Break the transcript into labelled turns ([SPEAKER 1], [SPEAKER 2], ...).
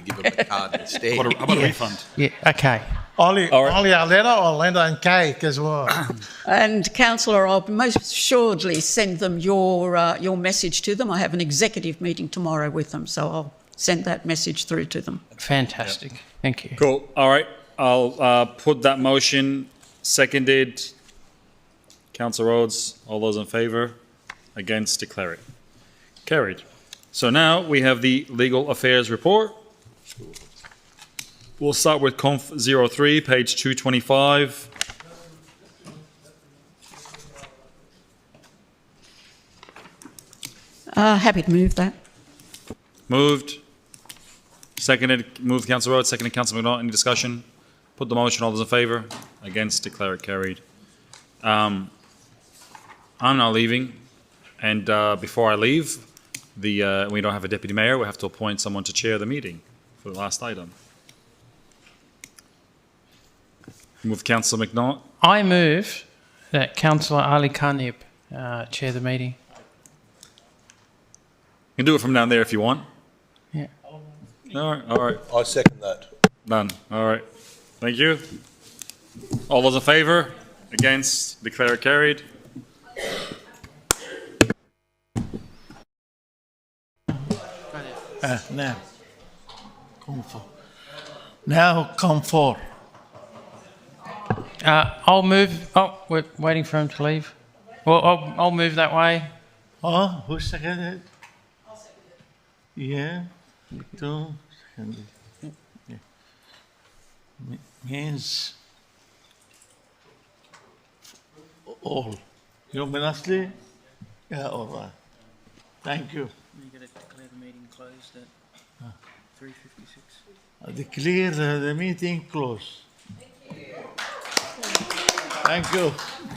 [SPEAKER 1] give him a card instead.
[SPEAKER 2] What a, how about a refund?
[SPEAKER 3] Yeah, okay.
[SPEAKER 4] Ollie,
[SPEAKER 2] All right.
[SPEAKER 4] Ollie Arletta or Linda and Cake as well.
[SPEAKER 5] And councillor, I'll most assuredly send them your uh, your message to them. I have an executive meeting tomorrow with them, so I'll send that message through to them.
[SPEAKER 3] Fantastic. Thank you.
[SPEAKER 2] Cool. All right. I'll uh, put that motion seconded. Councillor Rhodes, all those in favour? Against, declare it. Carried. So now we have the legal affairs report. We'll start with conf 03, page 225.
[SPEAKER 5] Uh, happy to move that.
[SPEAKER 2] Moved. Seconded, moved Councillor Rhodes, seconded Councillor McNaught. Any discussion? Put the motion, all those in favour? Against, declare it carried. Um, I'm now leaving, and uh, before I leave, the, uh, we don't have a deputy mayor, we have to appoint someone to chair the meeting for the last item. Move Councillor McNaught.
[SPEAKER 3] I move that Councillor Ali Khanib uh, chair the meeting.
[SPEAKER 2] You can do it from down there if you want.
[SPEAKER 3] Yeah.
[SPEAKER 2] All right, all right,
[SPEAKER 1] I second that.
[SPEAKER 2] done, all right. Thank you. All those in favour? Against? Declare it carried. Eh,
[SPEAKER 4] Uh, now, come for.
[SPEAKER 2] Nou,
[SPEAKER 4] Now come for.
[SPEAKER 3] Uh, I'll move. Oh, we're waiting for him to leave. Well, I'll, I'll move that way.
[SPEAKER 4] Oh, who seconded? Yeah, two seconded. Yeah. Me- Means all. You mean lastly? Yeah, all right. Thank you.
[SPEAKER 6] You gotta declare the meeting closed at three fifty-six.
[SPEAKER 4] I declare the the meeting closed. Thank you.